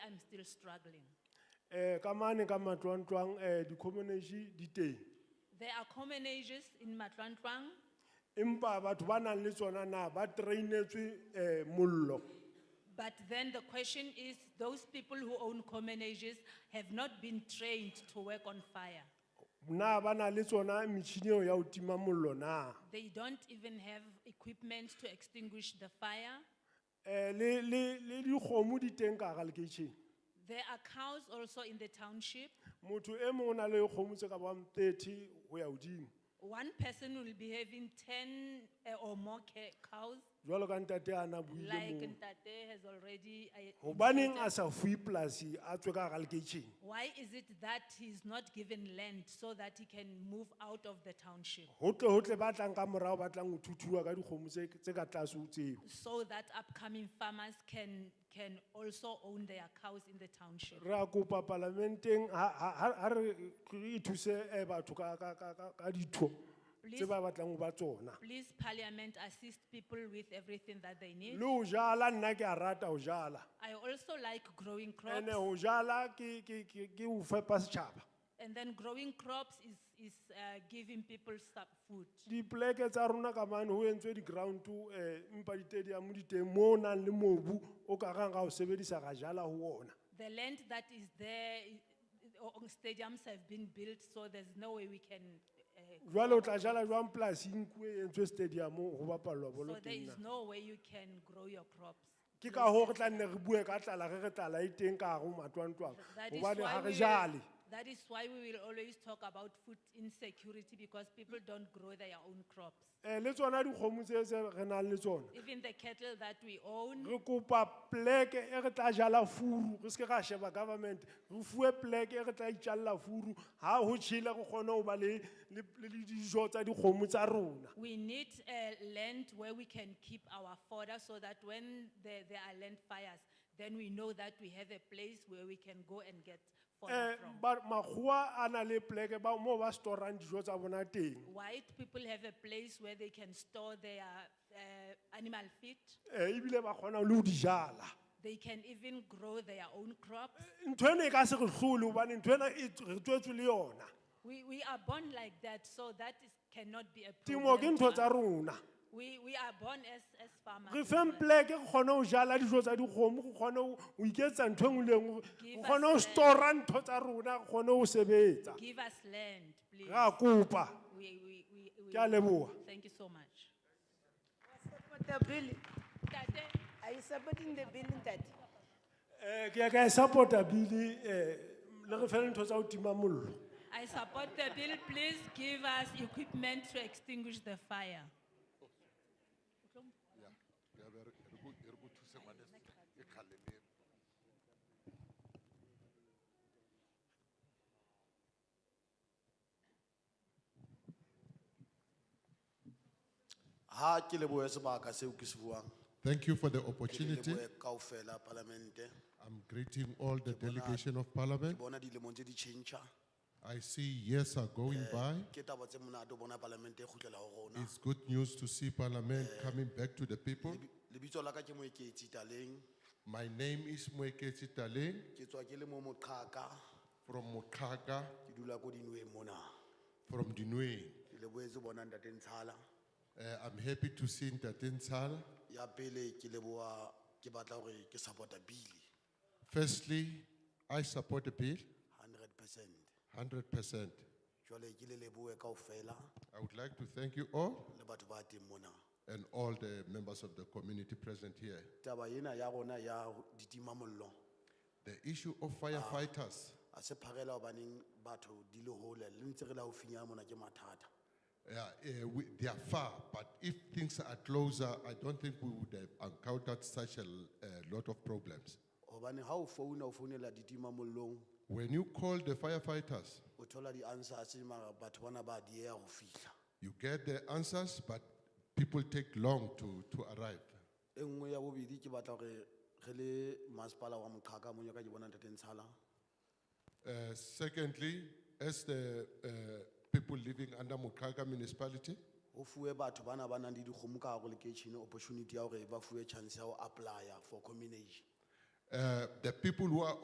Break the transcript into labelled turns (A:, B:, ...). A: still struggling.
B: Eh, kamane kama tuan tuan, eh, di community di te.
A: There are common ages in Matlantwang,
B: Impa batho ba nang le tsona na, ba trainetswe eh, mollo.
A: but then the question is those people who own common ages have not been trained to work on fire.
B: Na ba na le tsona metjhini eo ya ho tima mollo na.
A: They don't even have equipment to extinguish the fire.
B: Eh, le, le, le dikgomo di teng ka hara lekeisheneng.
A: There are cows also in the township.
B: Motho e mong o na le dikgomo tse ka bang 30 ho ya hodimo.
A: One person will be having 10 eh, or more ca- cows,
B: Jwalo ka ntate ana buile
A: like
B: moo.
A: Ntate has already. eh,
B: Hobaneng
A: indicated.
B: a sa fuwe polasi a tswe ka hara lekeisheneng?
A: Why is it that he's not given land so that he can move out of the township?
B: Ho tle ho tle ba tlang ka morao ba tlang ho thuthuwa ka dikgomo tse tse ka tlase ho tseo.
A: So that upcoming farmers can, can also own their cows in the township.
B: re a kopa palamenteng ha- ha ha- ha re re thuse eh, batho ka ka ka ka ka ditho tse
A: Please,
B: ba batlang ho ba tsona
A: please parliament assist people with everything that they need.
B: le ho jala nna ke a rata ho jala
A: I also like growing crops
B: ande ho jala ke ke ke ke ho fepa setjhaba
A: and then growing crops is, is uh, giving people some food.
B: dipoleke tsa rona ka mane ho entswe di-ground eh, mpa ditediamo diteng moo o nang le mobu o ka rang ra o sebedisa ra jala ho ona
A: The land that is there, i- i- o- o- stadiums have been built, so there's no way we can. uh,
B: jwale o tla jala jwang polasing kuo e entswe stadiamo ho bapallwa
A: So
B: bolo
A: there
B: teng
A: is
B: na
A: no way you can grow your crops.
B: ke ka hoo re tla nne re bue ka tlala ge re tlala e teng ka gare ho matlwantlwang
A: That is
B: gobane
A: why
B: ga
A: we
B: re
A: will-
B: jale
A: That is why we will always talk about food insecurity because people don't grow their own crops.
B: um le tsona dikgomo tse tse re nang le tsona
A: Even the cattle that we own,
B: re kopa poleke e re tla jala furu re seke ra sheba government re fue poleke e re tla itjalela furu ga go tšhele re kgone go ba le le- le dijo tsa dikgomo tsa rona
A: we need uh, land where we can keep our fodder so that when there, there are land fires, then we know that we have a place where we can go and get fodder from.
B: um makgowa a na le poleke ba- moo ba storang dijo tsa bona teng
A: White people have a place where they can store their uh, animal feed.
B: um ebile ba kgona le go di jala
A: They can even grow their own crops.
B: ntho eno e ka se re tlhole gobane ntho ena e t- re tswetswe le yona
A: We, we are born like that, so that is, cannot be a
B: temo ke
A: problem.
B: ntho
A: to
B: tsa
A: us.
B: rona
A: We, we are born as, as
B: re
A: farmers.
B: feng poleke re kgone go jala dijo tsa dikgomo re kgone ho- ho iketsa ntho engwe le engwe re
A: Give
B: kgone
A: us
B: go
A: land.
B: stora ntho tsa rona re kgone go sebetsa
A: Give us land, please.
B: re a kopa
A: We, we, we, we,
B: ke a leboga
A: Thank you so much.
C: Support the bill.
A: Ntate,
C: Are you supporting the bill, Ntate?
B: um ke ya ka e support-a bile um le re fele ntho tsa go tima mollo
A: I support the bill. Please give us equipment to extinguish the fire.
D: Ya, ya be re- re go- re go thuse ngwaneso, e kgale le-
E: ha ke lebohe sebaka seo ke se buang
D: Thank you for the
E: Ke le
D: opportunity.
E: lebohe kaofela palamente
D: I'm greeting all the delegation of parliament.
E: bona dilemong tse di tšhentšha
D: I see years are going by.
E: ke taba tse monate ho bona palamente e kgutlela ho rona
D: It's good news to see parliament coming back to the people.
E: Lebi- lebitso la ka ke moeketsi taleng
D: My name is Mweketi Taleng
E: ke tswa ke le mo moqhaka
D: from Mokaka,
E: ke dula ko dinweng mona
D: from Dinwe.
E: ke leboetse bona ntate ntshala
D: Uh, I'm happy to see Ntate Nsala.
E: ya pele ke leboa ke batla hore ke supporta bile
D: Firstly, I support the bill
E: 100 percent
D: 100%.
E: jwale ke le leboe kaofela
D: I would like to thank you all
E: le batho ba teng mona
D: and all the members of the community present here.
E: taba ena ya rona ya ditimamollo
D: The issue of firefighters.
E: a se pharela obaneng batho di le hole le ntse re la ofinya mona ke mathata
D: Yeah, eh, we, they are far, but if things are closer, I don't think we would have encountered such a l- a lot of problems.
E: hobane ha o founa o founela ditima mollong
D: When you call the firefighters,
E: o thola di-answers mara batho bana ba dieya ho fihla
D: you get the answers, but people take long to, to arrive.
E: e nngwe ya bobedi ke batla hore re le masepala wa moqhaka mo nyaka ke bona ntate ntshala
D: Uh, secondly, as the uh, people living under Mukaka municipality,
E: ho fuwe batho bana ba nang le dikgomo ka hare ho lekeishene opportunity ya hore ba fuwe chance ya ho apply-a for combination
D: uh, eh, the people who are